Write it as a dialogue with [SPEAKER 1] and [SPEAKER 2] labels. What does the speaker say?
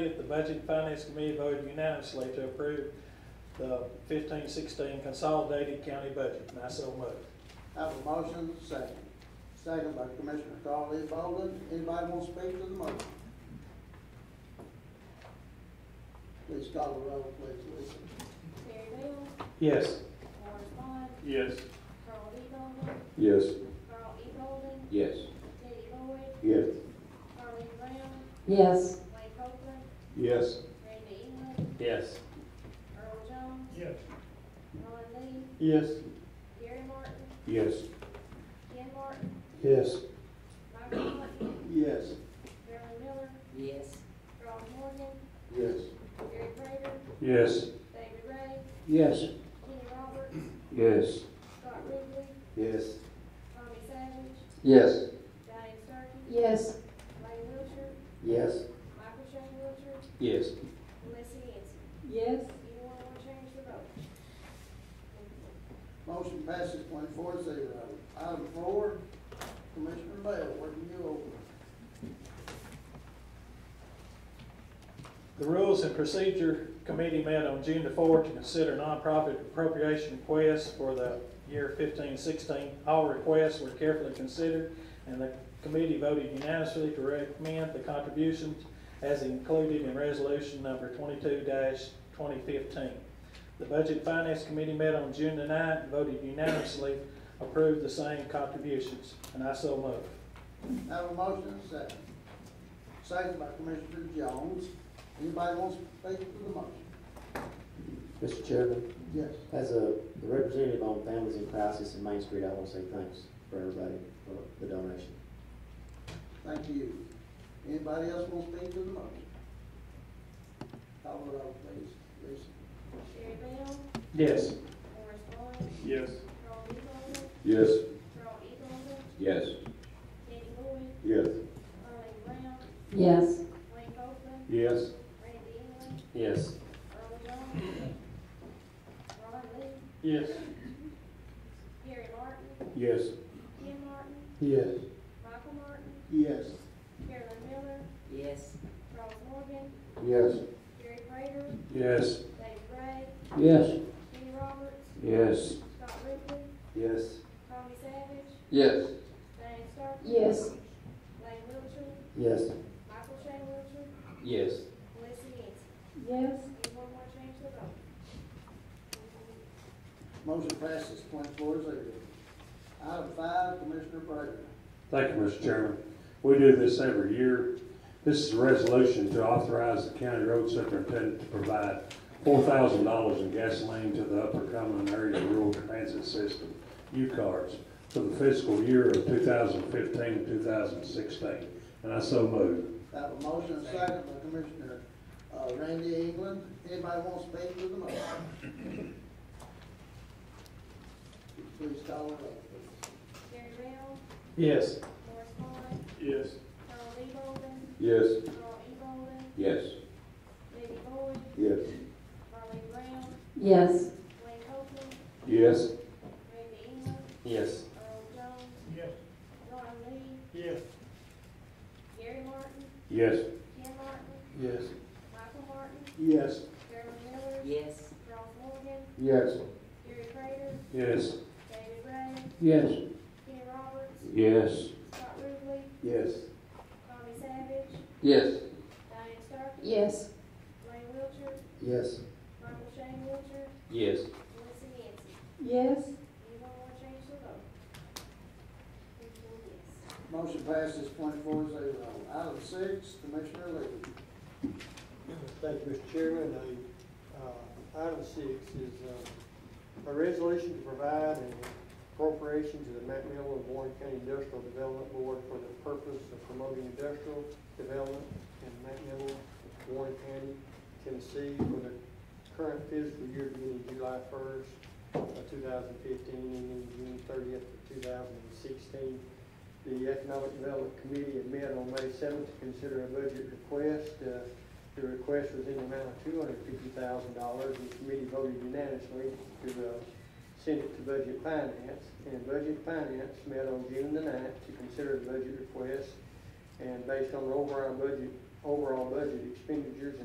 [SPEAKER 1] The Budget and Finance Committee voted unanimously to approve the fifteen sixteen consolidated county budget, and I so move.
[SPEAKER 2] Have a motion, second. Second by Commissioner Carl E. Bolden. Anybody want to speak to the motion? Please call the roll, please, Lisa.
[SPEAKER 3] Terry Bell,
[SPEAKER 1] Yes.
[SPEAKER 3] Morris Bond,
[SPEAKER 4] Yes.
[SPEAKER 3] Carl E. Bolden,
[SPEAKER 5] Yes.
[SPEAKER 3] Carl E. Bolden,
[SPEAKER 5] Yes.
[SPEAKER 3] Teddy Boyd,
[SPEAKER 5] Yes.
[SPEAKER 3] Carly Brown,
[SPEAKER 6] yes,
[SPEAKER 3] Wayne Copeland,
[SPEAKER 5] Yes.
[SPEAKER 3] Randy England,
[SPEAKER 4] Yes.
[SPEAKER 3] Earl Jones,
[SPEAKER 4] Yes.
[SPEAKER 3] Ron Lee,
[SPEAKER 5] Yes.
[SPEAKER 3] Gary Martin,
[SPEAKER 5] Yes.
[SPEAKER 3] Ken Martin,
[SPEAKER 5] Yes.
[SPEAKER 3] Michael Martin,
[SPEAKER 2] Yes.
[SPEAKER 3] Marilyn Miller,
[SPEAKER 6] yes,
[SPEAKER 3] Ron Morgan,
[SPEAKER 5] Yes.
[SPEAKER 3] Gary Prater,
[SPEAKER 5] Yes.
[SPEAKER 3] David Ray,
[SPEAKER 5] Yes.
[SPEAKER 3] Kenny Roberts,
[SPEAKER 5] Yes.
[SPEAKER 3] Scott Ridley,
[SPEAKER 5] Yes.
[SPEAKER 3] Tommy Savage,
[SPEAKER 5] Yes.
[SPEAKER 3] Diane Starkey,
[SPEAKER 6] yes,
[SPEAKER 3] Lane Wilcher,
[SPEAKER 5] Yes.
[SPEAKER 3] Michael Shane Wilcher,
[SPEAKER 5] Yes.
[SPEAKER 3] and Leslie Hanson.
[SPEAKER 6] yes,
[SPEAKER 3] Anyone want to change the vote?
[SPEAKER 2] Motion passes twenty-four zero. Item four, Commissioner Bell, working you over.
[SPEAKER 1] The Rules and Procedure Committee met on June the fourth to consider nonprofit appropriation requests for the year fifteen sixteen. All requests were carefully considered, and the committee voted unanimously to recommend the contributions as included in resolution number twenty-two twenty fifteen. The Budget and Finance Committee met on June the ninth, and voted unanimously, approved the same contributions, and I so move.
[SPEAKER 2] Have a motion, second. Second by Commissioner Jones. Anybody wants to speak to the motion?
[SPEAKER 7] Mr. Chairman,
[SPEAKER 2] Yes.
[SPEAKER 7] as a the representative on Families in Crisis in Main Street, I want to say thanks for everybody for the donation.
[SPEAKER 2] Thank you. Anybody else want to speak to the motion? Call the roll, please, Lisa.
[SPEAKER 3] Terry Bell,
[SPEAKER 1] Yes.
[SPEAKER 3] Morris Bond,
[SPEAKER 4] Yes.
[SPEAKER 3] Carl E. Bolden,
[SPEAKER 5] Yes.
[SPEAKER 3] Carl E. Bolden,
[SPEAKER 5] Yes.
[SPEAKER 3] Kenny Boyd,
[SPEAKER 5] Yes.
[SPEAKER 3] Carly Brown,
[SPEAKER 6] yes,
[SPEAKER 3] Wayne Copeland,
[SPEAKER 5] Yes.
[SPEAKER 3] Randy England,
[SPEAKER 5] Yes.
[SPEAKER 3] Earl Jones, Ron Lee,
[SPEAKER 5] Yes.
[SPEAKER 3] Gary Martin,
[SPEAKER 5] Yes.
[SPEAKER 3] Ken Martin,
[SPEAKER 5] Yes.
[SPEAKER 3] Michael Martin,
[SPEAKER 2] Yes.
[SPEAKER 3] Carolyn Miller,
[SPEAKER 6] yes,
[SPEAKER 3] Charles Morgan,
[SPEAKER 5] Yes.
[SPEAKER 3] Gary Prater,
[SPEAKER 5] Yes.
[SPEAKER 3] David Ray,
[SPEAKER 5] Yes.
[SPEAKER 3] Kenny Roberts,
[SPEAKER 5] Yes.
[SPEAKER 3] Scott Ridley,
[SPEAKER 5] Yes.
[SPEAKER 3] Tommy Savage,
[SPEAKER 5] Yes.
[SPEAKER 3] Diane Starkey,
[SPEAKER 6] yes,
[SPEAKER 3] Lane Wilcher,
[SPEAKER 5] Yes.
[SPEAKER 3] Michael Shane Wilcher,
[SPEAKER 5] Yes.
[SPEAKER 3] Leslie Hanson.
[SPEAKER 6] yes,
[SPEAKER 3] Anyone want to change the vote?
[SPEAKER 2] Motion passes twenty-four zero. Item five, Commissioner Prater.
[SPEAKER 8] Thank you, Mr. Chairman. We do this every year. This is a resolution to authorize the county road superintendent to provide four thousand dollars in gasoline to the Upper Cumberland Area Rural Transit System, U-Cars, for the fiscal year of 2015-2016, and I so move.
[SPEAKER 2] Have a motion and second by Commissioner uh, Randy England. Anybody want to speak to the motion? Please call the roll.
[SPEAKER 3] Gary Bell,
[SPEAKER 1] Yes.
[SPEAKER 3] Morris Bond,
[SPEAKER 4] Yes.
[SPEAKER 3] Carl E. Bolden,
[SPEAKER 5] Yes.
[SPEAKER 3] Carl E. Bolden,
[SPEAKER 5] Yes.
[SPEAKER 3] Betty Boyd,
[SPEAKER 5] Yes.
[SPEAKER 3] Carly Brown,
[SPEAKER 6] yes,
[SPEAKER 3] Wayne Copeland,
[SPEAKER 5] Yes.
[SPEAKER 3] Randy England,
[SPEAKER 5] Yes.
[SPEAKER 3] Earl Jones,
[SPEAKER 4] Yes.
[SPEAKER 3] Ron Lee,
[SPEAKER 4] Yes.
[SPEAKER 3] Gary Martin,
[SPEAKER 8] Yes.
[SPEAKER 3] Ken Martin,
[SPEAKER 5] Yes.
[SPEAKER 3] Michael Martin,
[SPEAKER 5] Yes.
[SPEAKER 3] Carolyn Miller,
[SPEAKER 6] yes,
[SPEAKER 3] Charles Morgan,
[SPEAKER 5] Yes.
[SPEAKER 3] Gary Prater,
[SPEAKER 8] Yes.
[SPEAKER 3] David Ray,
[SPEAKER 5] Yes.
[SPEAKER 3] Kenny Roberts,
[SPEAKER 8] Yes.
[SPEAKER 3] Scott Ridley,
[SPEAKER 5] Yes.
[SPEAKER 3] Tommy Savage,
[SPEAKER 5] Yes.
[SPEAKER 3] Diane Starkey,
[SPEAKER 6] yes,
[SPEAKER 3] Lane Wilcher,
[SPEAKER 5] Yes.
[SPEAKER 3] Michael Shane Wilcher,
[SPEAKER 5] Yes.
[SPEAKER 3] Melissa Yancy.
[SPEAKER 6] yes,
[SPEAKER 3] Anyone want to change the vote? Please vote yes.
[SPEAKER 2] Motion passes twenty-four zero. Item six, Commissioner Lee.
[SPEAKER 9] Thank you, Mr. Chairman. The, uh, Item six is uh, a resolution to provide an appropriation to the Mount Miller and Warren County Industrial Development Board for the purpose of promoting industrial development in Mount Miller, Warren County, Tennessee for the current fiscal year beginning July first, two thousand fifteen, ending June thirtieth, two thousand and sixteen. The Economic Development Committee had met on May seventh to consider a budget request. Uh, the request was in the amount of two hundred fifty thousand dollars, and the committee voted unanimously to, uh, send it to Budget Finance. And Budget Finance met on June the ninth to consider the budget request. And based on the overall budget overall budget expenditures